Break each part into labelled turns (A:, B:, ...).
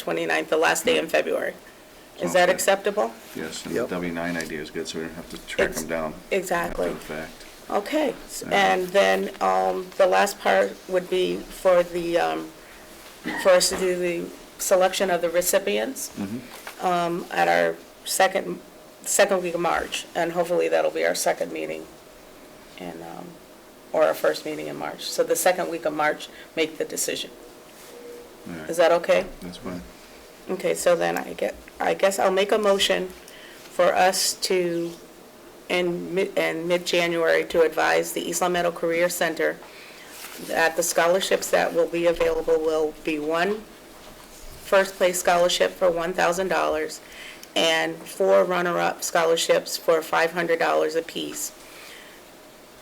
A: 29th, the last day in February. Is that
B: Okay.
A: acceptable?
B: Yes, and the
C: Yep.
B: W nine idea is good, so we don't have to track
A: Ex-
B: them down.
A: exactly.
B: After the fact.
A: Okay, s-
B: Yeah.
A: and then um, the last part would be for the, um, for us to do the selection of the recipients
B: Mm-hmm.
A: um, at our second, second week of March, and hopefully that'll be our second meeting and, um, or our first meeting in March. So the second week of March, make the decision.
B: All right,
A: Is that okay?
B: That's fine.
A: Okay, so then I get, I guess I'll make a motion for us to, in mid, in mid-January, to advise the East Long Meadow Career Center that the scholarships that will be available will be one first-place scholarship for $1,000 and four runner-up scholarships for $500 apiece.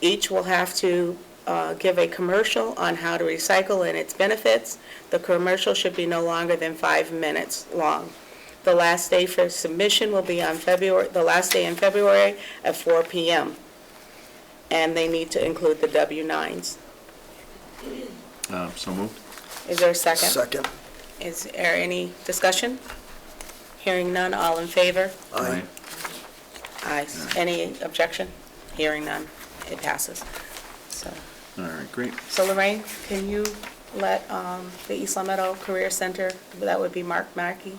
A: Each will have to uh, give a commercial on how to recycle and its benefits. The commercial should be no longer than five minutes long. The last day for submission will be on February, the last day in February at 4 PM. And they need to include the W-9s.
B: Uh, so moved?
A: Is there a second?
C: Second.
A: Is there any discussion? Hearing none, all in favor?
C: Aye.
A: Aye. Any objection? Hearing none, it passes. So.
B: All right, great.
A: So Lorraine, can you let um, the East Long Meadow Career Center, that would be Mark Mackey,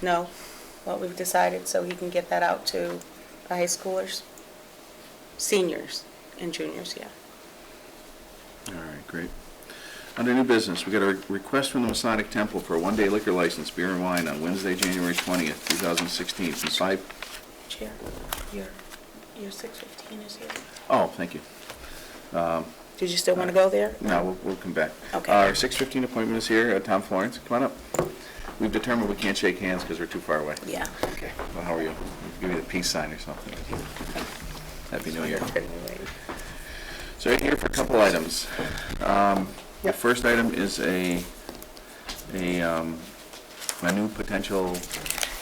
A: know what we've decided so he can get that out to the high schoolers? Seniors and juniors, yeah.
B: All right, great. Under new business, we got a request from the Masonic Temple for a one-day liquor license, beer and wine, on Wednesday, January twentieth, two thousand sixteen, from five,
A: Chair, your, your 615 is here.
B: oh, thank you.
A: Did you still want to go there?
B: No, we'll, we'll come back.
A: Okay.
B: Our six fifteen appointment is here, uh, Tom Florence, come on up. We've determined we can't shake hands because we're too far away.
A: Yeah.
B: Okay, well, how are you? Give me the peace sign or something. Happy New Year. So we're here for a couple items. Um, The first item is a, a, um, a new potential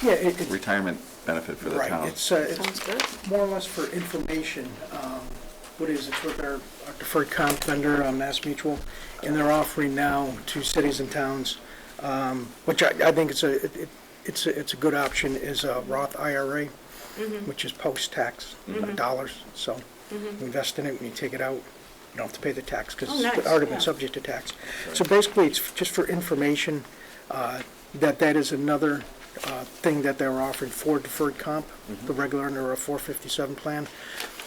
D: Yeah, it, it,
B: retirement benefit for the
D: right,
B: town.
D: it's, uh,
A: Sounds
D: it's
A: good.
D: more or less for information. Um, What is, it's with our our deferred comp vendor, um, Mass Mutual, and they're offering now to cities and towns, um, which I, I think it's a, it- it- it's, a- it's a good option, is a Roth IRA,
A: Mm-hmm.
D: which is post-tax dollars, so we invest in it, when you take it out, you don't have to pay the tax, because
A: Oh, nice,
D: it's already been
A: yeah.
D: subject to tax. So basically, it's just for information, uh, that that is another uh, thing that they're offering for deferred comp, the regular under a 457 plan.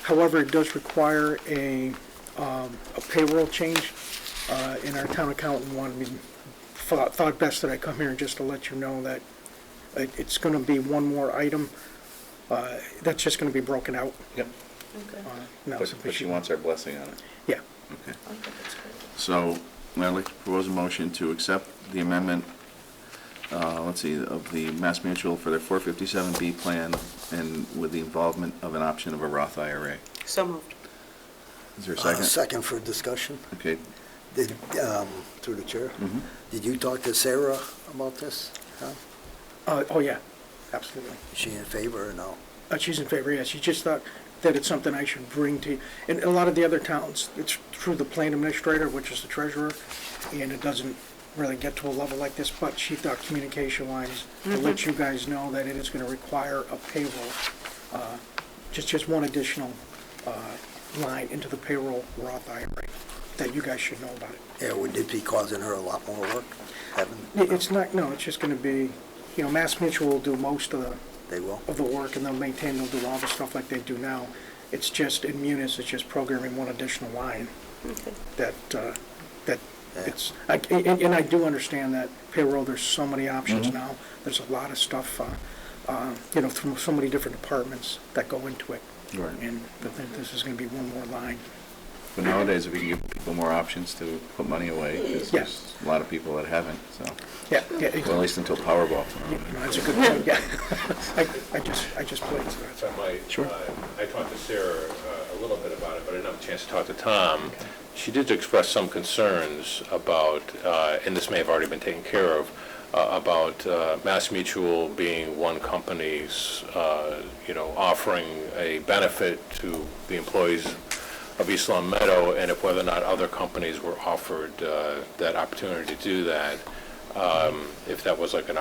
D: However, it does require a um, a payroll change, uh, and our town accountant wanted me, thought thought best that I come here just to let you know that it- it's going to be one more item uh, that's just going to be broken out.
B: Yep.
A: Okay.
D: uh, now,
B: But
D: so
B: but she wants our blessing on it.
D: Yeah,
B: Okay.
A: I think it's good.
B: So I'd like to propose a motion to accept the amendment, uh, let's see, of the Mass Mutual for their 457B plan and with the involvement of an option of a Roth IRA.
A: So moved.
B: Is there a
C: Uh,
B: second?
C: Second for discussion.
B: Okay,
C: Did, um, through the chair, did you talk to Sarah about this? Huh?
D: Uh, oh, yeah, absolutely.
C: Is she in favor or no?
D: Uh, She's in favor, yes. She just thought that it's something I should bring to, and a lot of the other towns, it's through the plan administrator, which is the treasurer, and it doesn't really get to a level like this, but she thought communication wise, to let you guys know that it is gonna require a payroll, uh, just, just one additional, uh, line into the payroll Roth IRA, that you guys should know about it.
C: Yeah, would it be causing her a lot more work? Haven't?
D: It- It's not, no, it's just gonna be, you know, Mass Mutual will do most of the
C: They will?
D: of the work, and they'll maintain, they'll do all the stuff like they do now. It's just, in Munis, it's just programming one additional line
A: Okay.
D: that, uh, that it's, I- and and I do understand that payroll, there's so many options
B: Mm-hmm.
D: now. There's a lot of stuff, uh, uh, you know, from so many different departments that go into it.
B: Right.
D: And I think this is going to be one more line.
B: but nowadays, we can give people more options to put money away, 'cause
D: Yeah.
B: there's a lot of people that haven't, so,
D: Yeah, yeah,
B: well, at
D: it-
B: least until Powerball.
D: no, that's a good point, yeah. I I just, I just played, so that's
E: If I might.
B: Sure.
E: uh, I talked to Sarah uh, a little bit about it, but I didn't have a chance to talk to Tom. She did express some concerns about, uh, and this may have already been taken care of, uh, about uh, Mass Mutual being one company's, uh, you know, offering a benefit to the employees of East Long Meadow, and if whether or not other companies were offered uh, that opportunity to do that. um, if that was like an